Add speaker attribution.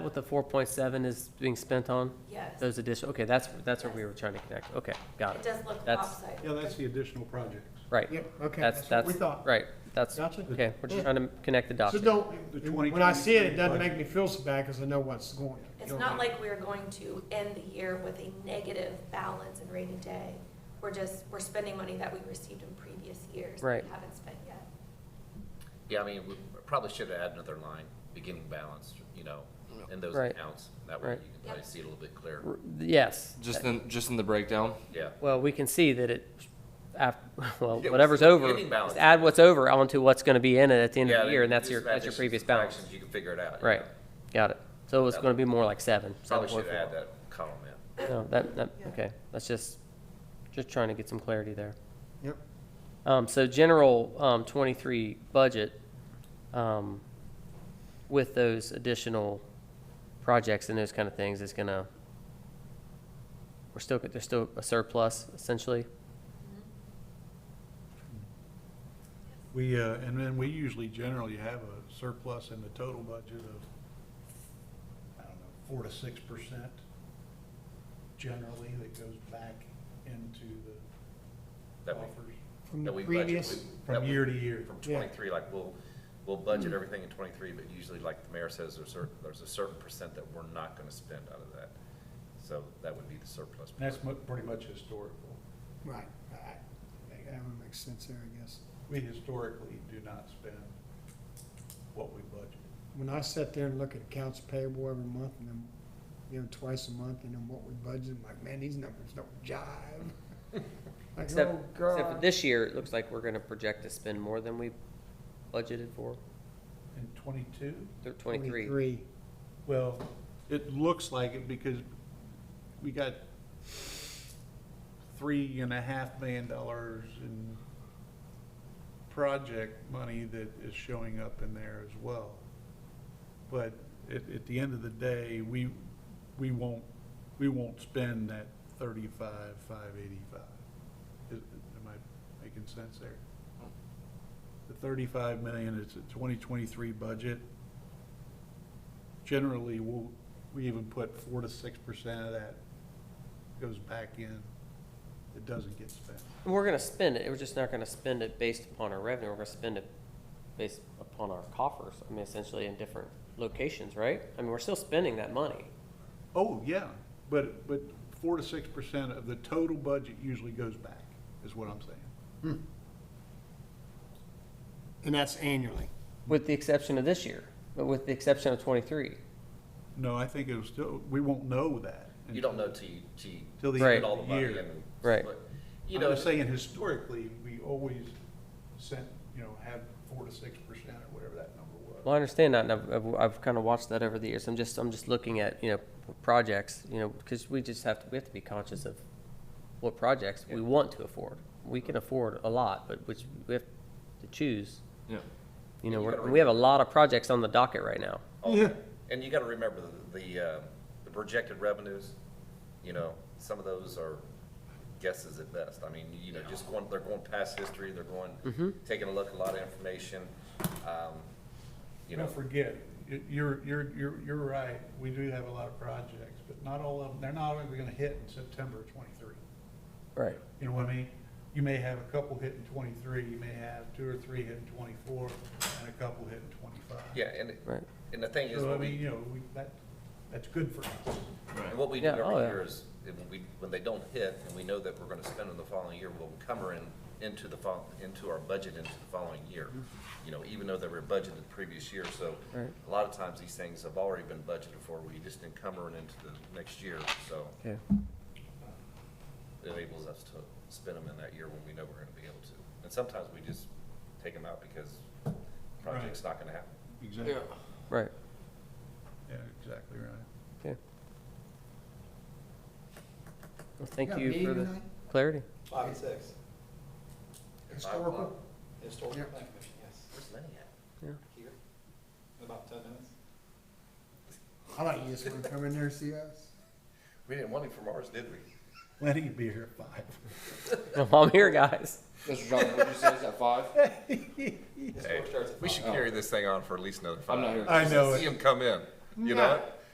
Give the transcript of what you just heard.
Speaker 1: what the four point seven is being spent on?
Speaker 2: Yes, it
Speaker 1: Those additional, okay, that's, that's what we were trying to connect. Okay, got it.
Speaker 2: does look
Speaker 1: That's-
Speaker 2: offside.
Speaker 3: Yeah, that's the additional projects,
Speaker 1: Right.
Speaker 4: Yep, okay,
Speaker 1: That's,
Speaker 4: that's what we
Speaker 1: that's,
Speaker 4: thought.
Speaker 1: right, that's,
Speaker 4: Gotcha.
Speaker 1: okay, we're just
Speaker 4: Yeah.
Speaker 1: trying to connect the dots.
Speaker 4: So
Speaker 1: here.
Speaker 3: The
Speaker 4: don't,
Speaker 3: 2023
Speaker 4: when I see it, it doesn't make me feel so bad because I know what's going.
Speaker 2: It's
Speaker 4: going
Speaker 2: not
Speaker 4: on.
Speaker 2: like we're going to end the year with a negative balance in rainy day. We're just, we're spending money that we received in previous years. that
Speaker 1: Right.
Speaker 2: We haven't spent yet.
Speaker 5: Yeah, I mean, we probably should have added another line, beginning balance, you know, in those
Speaker 1: Right.
Speaker 5: accounts. That way
Speaker 1: Right.
Speaker 5: you can probably see it a little bit clearer.
Speaker 1: R- Yes.
Speaker 6: Just in, just in the breakdown?
Speaker 5: Yeah.
Speaker 1: Well, we can see that it, af, well,
Speaker 5: Yeah,
Speaker 1: whatever's
Speaker 5: what's the
Speaker 1: over,
Speaker 5: ending balance?
Speaker 1: just add what's over onto what's gonna be in it at the end
Speaker 5: Yeah,
Speaker 1: of the
Speaker 5: then
Speaker 1: year, and that's
Speaker 5: just
Speaker 1: your, that's your
Speaker 5: additions,
Speaker 1: previous balance.
Speaker 5: subtractions, You can figure it out. you
Speaker 1: Right,
Speaker 5: know.
Speaker 1: got it. So it's gonna be more like seven.
Speaker 5: Probably should
Speaker 1: 7.4.
Speaker 5: have added that column in.
Speaker 1: No, that, that, okay, that's just, just trying to get some clarity there.
Speaker 4: Yep.
Speaker 1: Um, so general, um, twenty-three budget, um, with those additional projects and those kind of things is gonna, we're still, there's still a surplus essentially.
Speaker 3: we, uh, and then we usually generally have a surplus in the total budget of, I don't know, four to six percent generally that goes back into the
Speaker 5: That we-
Speaker 3: offers
Speaker 4: From the
Speaker 5: that we budget-
Speaker 4: previous,
Speaker 5: we- that
Speaker 3: from
Speaker 5: we-
Speaker 3: year to year.
Speaker 5: From
Speaker 4: Yeah.
Speaker 5: twenty-three, like, we'll, we'll budget everything in twenty-three, but usually, like the mayor says, there's cer, there's a certain percent that we're not gonna spend out of that. So that would be the surplus.
Speaker 3: And that's mu- pretty much historical.
Speaker 4: right, I- I- that would make sense there, I guess.
Speaker 3: We historically do not spend what we budget.
Speaker 4: When I sit there and look at accounts payable every month and then, you know, twice a month and then what we budget, I'm like, man, these numbers don't jive. Like,
Speaker 1: Except,
Speaker 4: oh,
Speaker 1: except for
Speaker 4: God.
Speaker 1: this year, it looks like we're gonna project to spend more than we budgeted for,
Speaker 3: In twenty-two?
Speaker 1: Th- twenty-three.
Speaker 3: Well, it looks like it because we got three and a half million dollars in project money that is showing up in there as well. But at, at the end of the day, we, we won't, we won't spend that thirty-five, five eighty-five. Is, am I making sense there? The thirty-five million is a twenty twenty-three budget generally, we'll, we even put four to six percent of that goes back in. It doesn't get spent.
Speaker 1: And We're gonna spend it, we're just not gonna spend it based upon our revenue, we're gonna spend it based upon our coffers, I mean, essentially in different locations, right? I mean, we're still spending that money.
Speaker 3: Oh, yeah, but, but four to six percent of the total budget usually goes back, is what I'm saying.
Speaker 4: And that's annually.
Speaker 1: With the exception of this year, but with the exception of twenty-three.
Speaker 3: No, I think it'll still, we won't know that.
Speaker 5: You don't know till you, till you.
Speaker 3: Till the
Speaker 5: spend
Speaker 1: end
Speaker 5: all
Speaker 3: of
Speaker 5: the
Speaker 3: the
Speaker 5: money
Speaker 3: year.
Speaker 5: and then
Speaker 1: Right.
Speaker 5: split. You
Speaker 3: I'm
Speaker 5: know,
Speaker 3: just saying historically, we always sent, you know, have four to six percent or whatever that number was.
Speaker 1: Well, I understand that, and I've, I've, I've kind of watched that over the years, I'm just, I'm just looking at, you know, projects, you know, because we just have to, we have to be conscious of what projects we want to afford. We can afford a lot, but which, we have to choose,
Speaker 6: Yeah.
Speaker 1: you know,
Speaker 5: You
Speaker 1: we're-
Speaker 5: gotta
Speaker 1: we have a lot of projects on the docket right now.
Speaker 5: all that. Oh, And you gotta remember the, the, uh, the projected revenues, you know, some of those are guesses at best. I mean, you know, just going, they're going past history, they're going, taking a look, at a lot of information, um, you know.
Speaker 3: Don't forget, you- you're, you're, you're, you're right, we do have a lot of projects, but not all of them, they're not only gonna hit in September of twenty-three.
Speaker 1: Right.
Speaker 3: You know what I mean? You may have a couple hit in twenty-three, you may have two or three hit in twenty-four, and a couple hit in twenty-five.
Speaker 5: Yeah, and,
Speaker 1: Right.
Speaker 5: and the thing is,
Speaker 3: So, I
Speaker 5: what
Speaker 3: mean,
Speaker 5: we,
Speaker 3: you know, we, that, that's good for us.
Speaker 5: and what we do
Speaker 1: Yeah, oh,
Speaker 5: every
Speaker 1: yeah.
Speaker 5: year is, if we, when they don't hit, and we know that we're gonna spend in the following year, we'll encumber in, into the fol, into our budget into the following year. You know, even though they were budgeted the previous year, so
Speaker 1: Mm-hmm. Right.
Speaker 5: a lot of times these things have already been budgeted for, we just encumber it into the next year, so
Speaker 1: Okay.
Speaker 5: it enables us to spend them in that year when we know we're gonna be able to. And sometimes we just take them out because project's not gonna happen.
Speaker 3: Exactly.
Speaker 1: Right.
Speaker 3: Yeah, exactly right.
Speaker 1: Okay. Well, thank
Speaker 4: got a
Speaker 1: you
Speaker 4: meeting
Speaker 1: for the
Speaker 4: tonight?
Speaker 1: clarity.
Speaker 7: Five and six,
Speaker 5: At five o'clock,
Speaker 4: Historical?
Speaker 7: historical
Speaker 4: Yep.
Speaker 7: plan commission, yes,
Speaker 5: Where's Lenny at?
Speaker 7: here, in about ten minutes.
Speaker 4: I like you just want to come in there and see us.
Speaker 5: We didn't want him from ours, did we?
Speaker 3: Lenny will be here at five.
Speaker 1: I'm here, guys.
Speaker 6: Mr. John, what did you say, is that five?
Speaker 7: Historic starts at
Speaker 5: We should
Speaker 7: five.
Speaker 5: Oh. carry this thing on for at least another five.
Speaker 6: I'm not here.
Speaker 3: I know
Speaker 5: See
Speaker 3: it.
Speaker 5: him come in, you know?